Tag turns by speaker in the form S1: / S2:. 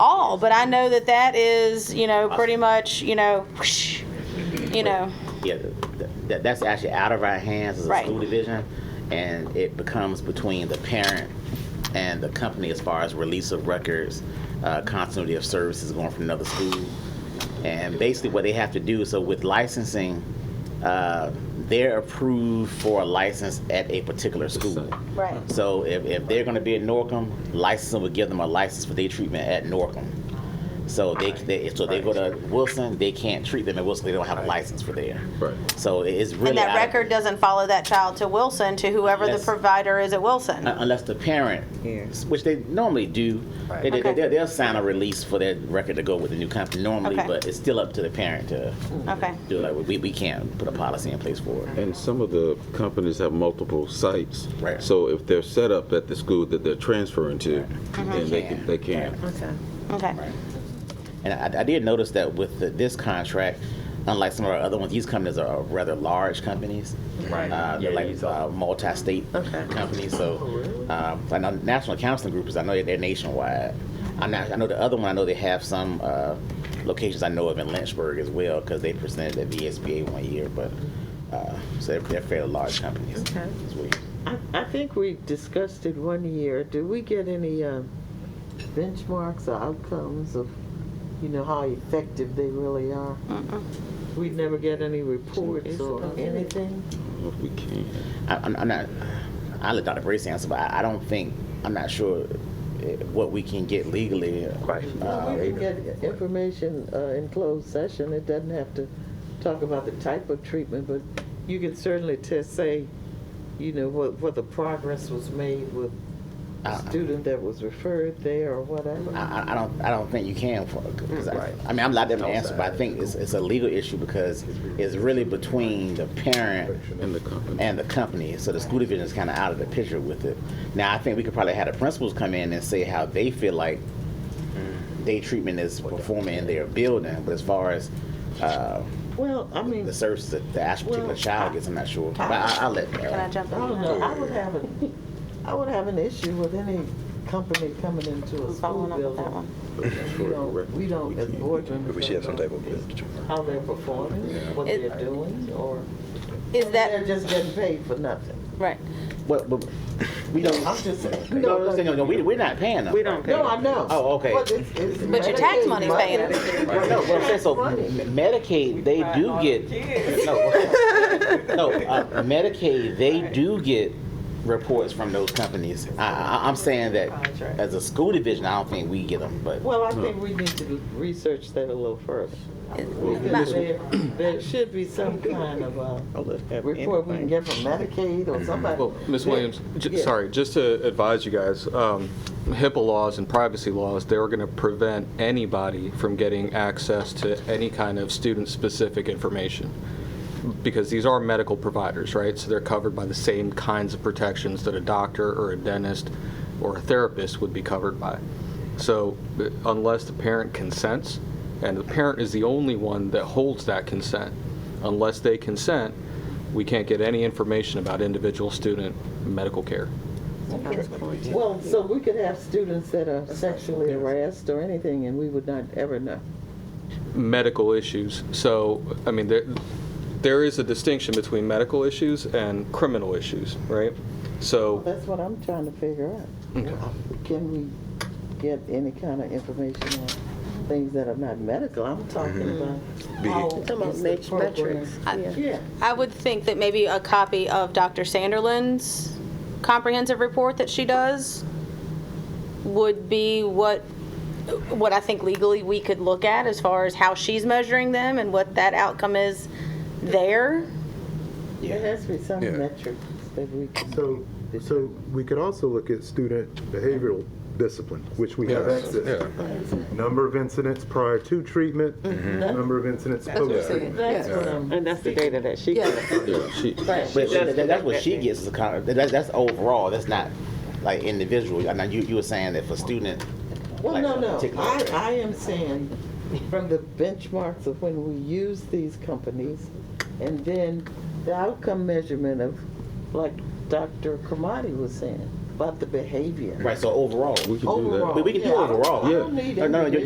S1: all, but I know that that is, you know, pretty much, you know, whoosh, you know,
S2: Yeah, that, that's actually out of our hands as a
S1: Right.
S2: school division, and it becomes between the parent and the company as far as release of records, uh, continuity of services going from another school, and basically what they have to do. So with licensing, uh, they're approved for a license at a particular school.
S1: right,
S2: So if, if they're going to be at Norcom, licensing would give them a license for their treatment at Norcom. So they, they so they go to Wilson, they can't treat them at Wilson. They don't have a license for there.
S3: Right.
S2: So it- it's really
S1: and that
S2: out of-
S1: record doesn't follow that child to Wilson to whoever the
S2: Yes.
S1: provider is at Wilson.
S2: un- unless the parent,
S4: Yeah.
S2: which they normally do,
S3: Right.
S2: they, they,
S1: Okay.
S2: they'll- they'll sign a release for that record to go with the new company normally,
S1: Okay.
S2: but it's still up to the parent to
S1: Okay,
S2: do it. Like we, we can't put a policy in place for it.
S3: And some of the companies have multiple sites.
S2: Right.
S3: So if they're set up at the school that they're transferring to, then they can, they can.
S4: Okay.
S1: okay,
S2: And I, I did notice that with the, this contract, unlike some of our other ones, these companies are rather large companies.
S5: Right.
S2: Uh, they're
S5: Yeah,
S2: like
S5: these are-
S2: uh, multi-state
S4: Okay. Oh,
S2: companies. So um, I know National Counseling Group is. I know they're, they're nationwide. I'm not. I know the other one. I know they have some uh, locations I know of in Lynchburg as well because they presented at VSBA one year. But uh, so they're, they're fairly large companies.
S4: Okay.
S2: It's weird.
S4: I, I think we discussed it one year. Do we get any um, benchmarks or outcomes of, you know, how effective they really are? We never get any reports or anything?
S3: If Oh, we can.
S2: I, I'm, I'm not. I let Dr. Brace answer, but I, I don't think. I'm not sure uh, what we can get legally. uh,
S5: Right.
S4: No, we can get information uh, in closed session. It doesn't have to talk about the type of treatment, but you could certainly test, say, you know, what, whether progress was made with the
S2: Uh,
S4: student that was referred there or whatever.
S2: I, I- I don't. I don't think you can. For, 'cause I,
S5: Right.
S2: I mean, I'm not them to
S5: Outside.
S2: answer, but I think it's, it's a legal issue because it's really between the parent
S3: And the company.
S2: and the company. So the school division is kind of out of the picture with it. Now, I think we could probably have the principals come in and say how they feel like their treatment is performing in their building. But as far as uh,
S4: Well, I mean.
S2: the services that the actual particular
S4: Well,
S2: child gets, I'm not sure. But I, I'll let.
S1: can I
S2: Uh,
S1: jump
S4: I
S1: in?
S4: don't know, I would have an, I would have an issue with any company coming into a
S1: I'm
S4: school
S1: following up with that one.
S4: building. We don't, we don't, as board members.
S5: We should have some
S4: don't
S5: type
S4: know
S5: of.
S4: How they're performing, what
S1: It-
S4: they're doing, or.
S1: Is
S4: They're
S1: that,
S4: just getting paid for nothing.
S1: right,
S2: well, but we don't.
S4: I'm just saying.
S2: No, no, no, no, we, we're not paying them. We don't.
S4: No, I know.
S2: Oh, okay.
S4: But it's- it's
S1: But your tax
S4: Medicaid
S1: money's
S4: money.
S1: paying it.
S2: Well, no, well, say so Medicaid, they do get, no, well, no, uh, Medicaid, they do get reports from those companies. I, I, I'm saying that as a school division, I don't think we get them, but,
S4: Well, I think we need to research that a little further.
S1: my-
S4: Because There there should be some kind of a report we can get from Medicaid or somebody.
S6: Well, Ms. oh, Williams, j-
S4: Yeah.
S6: sorry, just to advise you guys, um, HIPAA laws and privacy laws, they're going to prevent anybody from getting access to any kind of student-specific information. Because these are medical providers, right? So they're covered by the same kinds of protections that a doctor or a dentist or a therapist would be covered by. So uh, unless the parent consents, and the parent is the only one that holds that consent, unless they consent, we can't get any information about individual student medical care.
S4: Well, so we could have students that are sexually harassed or anything, and we would not ever know.
S6: Medical issues, so, I mean, there, there is a distinction between medical issues and criminal issues, right? So,
S4: That's what I'm trying to figure out. Can we get any kind of information on things that are not medical? I'm talking about how is the program. Yeah,
S1: I would think that maybe a copy of Dr. Sanderlin's comprehensive report that she does would be what, what I think legally we could look at as far as how she's measuring them and what that outcome is there.
S4: there has to be some
S7: Yeah.
S4: metric that we can.
S8: So, so we could also look at student behavioral discipline, which we have
S7: Yes.
S8: access to. Number of incidents prior to treatment, number of incidents post-treatment.
S4: That's what I'm. And that's the data that she
S3: Yeah, she-
S2: but that- that's what she gets is a kind of, that, that's overall, that's not like individual. I know you, you were saying that for student,
S4: Well,
S2: like,
S4: no,
S2: a
S4: no,
S2: particular
S4: I,
S2: area.
S4: I am saying, from the benchmarks of when we use these companies, and then the outcome measurement of, like Dr. Kamadi was saying, about the behavior.
S2: right, so overall.
S3: We can do that.
S4: Overall.
S2: We- we can do
S4: yeah, I don't-
S2: overall.
S4: I don't need
S2: No, no,
S4: every-